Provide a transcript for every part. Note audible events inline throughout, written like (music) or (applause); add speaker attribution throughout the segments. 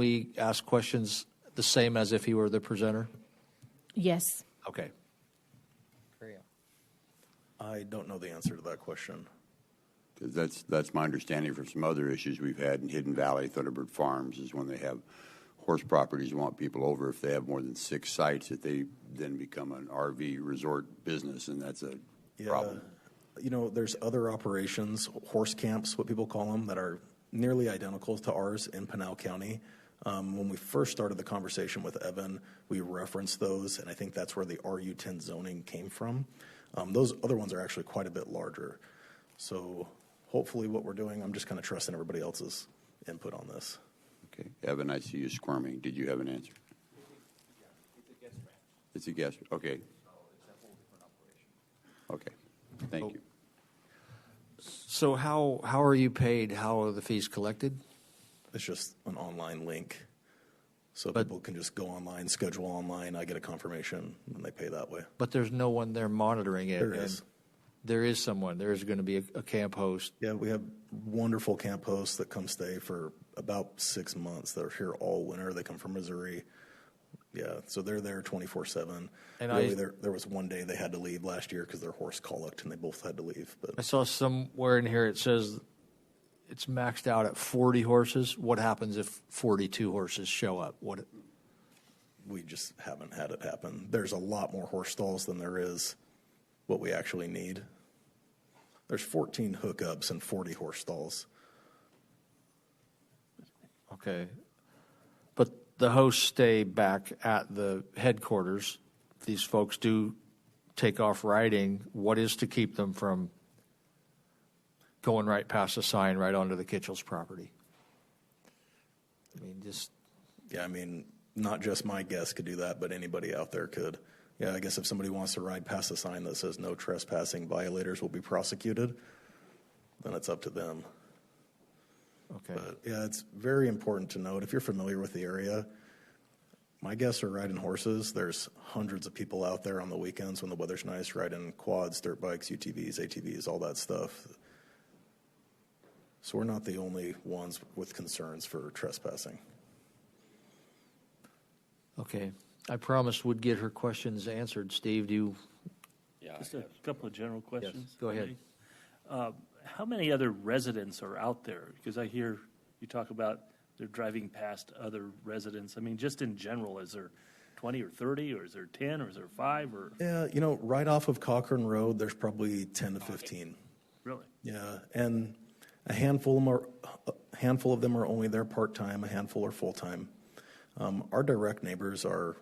Speaker 1: We ask questions the same as if he were the presenter?
Speaker 2: Yes.
Speaker 1: Okay.
Speaker 3: I don't know the answer to that question.
Speaker 4: 'Cause that's, that's my understanding from some other issues we've had in Hidden Valley, Thunderbird Farms, is when they have horse properties, want people over, if they have more than six sites, that they then become an RV resort business, and that's a problem.
Speaker 3: You know, there's other operations, horse camps, what people call them, that are nearly identical to ours in Pinal County. Um, when we first started the conversation with Evan, we referenced those, and I think that's where the RU10 zoning came from. Um, those other ones are actually quite a bit larger. So hopefully, what we're doing, I'm just kind of trusting everybody else's input on this.
Speaker 4: Okay, Evan, I see you squirming. Did you have an answer? It's a guess. Okay. Okay. Thank you.
Speaker 1: So how, how are you paid? How are the fees collected?
Speaker 3: It's just an online link. So people can just go online, schedule online, I get a confirmation, and they pay that way.
Speaker 1: But there's no one there monitoring it.
Speaker 3: There
Speaker 1: and
Speaker 3: is.
Speaker 1: There is someone. There is going to be a, a camp host.
Speaker 3: Yeah, we have wonderful camp hosts that come stay for about six months. They're here all winter. They come from Missouri. Yeah, so they're there 24 7.
Speaker 1: And
Speaker 3: really,
Speaker 1: I-
Speaker 3: there, there was one day they had to leave last year because their horse colicked and they both had to leave.
Speaker 1: I (laughs)
Speaker 3: But
Speaker 1: saw somewhere in here it says it's maxed out at 40 horses. What happens if 42 horses show up? What?
Speaker 3: we just haven't had it happen. There's a lot more horse stalls than there is what we actually need. There's 14 hookups and 40 horse stalls.
Speaker 1: Okay. But the hosts stay back at the headquarters. These folks do take off riding. What is to keep them from going right past the sign right onto the Kitchell's property? I mean, just,
Speaker 3: Yeah, I mean, not just my guests could do that, but anybody out there could. Yeah, I guess if somebody wants to ride past a sign that says no trespassing, violators will be prosecuted, then it's up to them.
Speaker 1: okay.
Speaker 3: But yeah, it's very important to note if you're familiar with the area, my guests are riding horses. There's hundreds of people out there on the weekends when the weather's nice riding quads, dirt bikes, UTVs, ATVs, all that stuff. So we're not the only ones with concerns for trespassing.
Speaker 1: Okay. I promised we'd get her questions answered. Steve, do you?
Speaker 5: Just a couple of general questions.
Speaker 1: go ahead.
Speaker 5: Uh, How many other residents are out there? Because I hear you talk about they're driving past other residents. I mean, just in general, is there 20 or 30, or is there 10, or is there five, or,
Speaker 3: Yeah, you know, right off of Cochrane Road, there's probably 10 to 15.
Speaker 5: really?
Speaker 3: Yeah, and a handful of them are, a handful of them are only there part-time, a handful are full-time. Um, Our direct neighbors are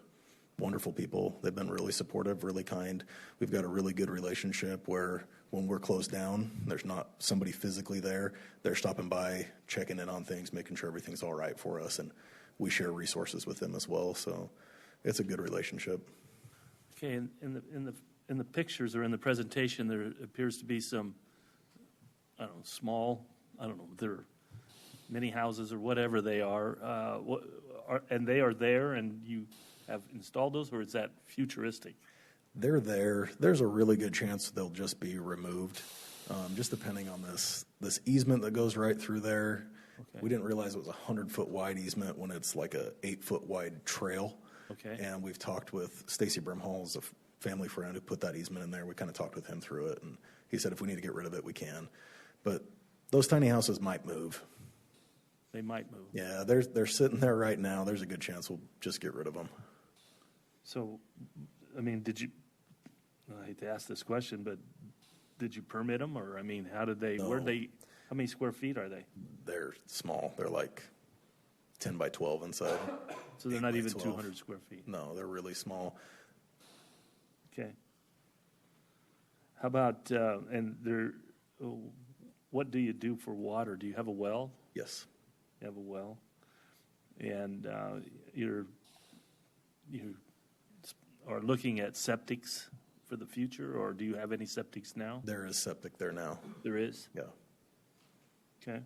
Speaker 3: wonderful people. They've been really supportive, really kind. We've got a really good relationship where when we're closed down, there's not somebody physically there. They're stopping by, checking in on things, making sure everything's all right for us, and we share resources with them as well. So it's a good relationship.
Speaker 5: Okay, in, in the, in the, in the pictures or in the presentation, there appears to be some, I don't know, small, I don't know, they're mini houses or whatever they are, uh, what, are, and they are there and you have installed those, or is that futuristic?
Speaker 3: they're there. There's a really good chance they'll just be removed, um, just depending on this this easement that goes right through there. We didn't realize it was a hundred foot wide easement when it's like a eight foot wide trail.
Speaker 5: Okay.
Speaker 3: And we've talked with Stacy Brimhall, is a f- family friend who put that easement in there. We kind of talked with him through it, and he said if we need to get rid of it, we can. But those tiny houses might move.
Speaker 5: They might move.
Speaker 3: Yeah, they're they're sitting there right now. There's a good chance we'll just get rid of them.
Speaker 5: So, I mean, did you, I hate to ask this question, but did you permit them, or, I mean, how did they, where'd
Speaker 3: No.
Speaker 5: they, how many square feet are they?
Speaker 3: They're small. They're like ten by twelve inside.
Speaker 5: So they're
Speaker 3: Eight
Speaker 5: not
Speaker 3: by
Speaker 5: even
Speaker 3: 12.
Speaker 5: two hundred square feet?
Speaker 3: No, they're really small.
Speaker 5: Okay. How about, uh, and there, oh, what do you do for water? Do you have a well?
Speaker 3: Yes.
Speaker 5: You have a well? And uh, you're, you s- are looking at septics for the future, or do you have any septics now?
Speaker 3: There is septic there now.
Speaker 5: There is?
Speaker 3: Yeah.
Speaker 5: Okay.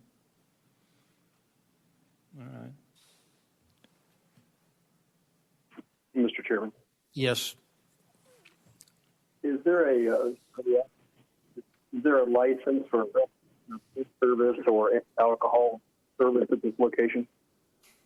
Speaker 5: All right.
Speaker 6: Mr. Chairman,
Speaker 1: Yes.
Speaker 6: is there a, uh, is there a license for food service or alcohol service at this location?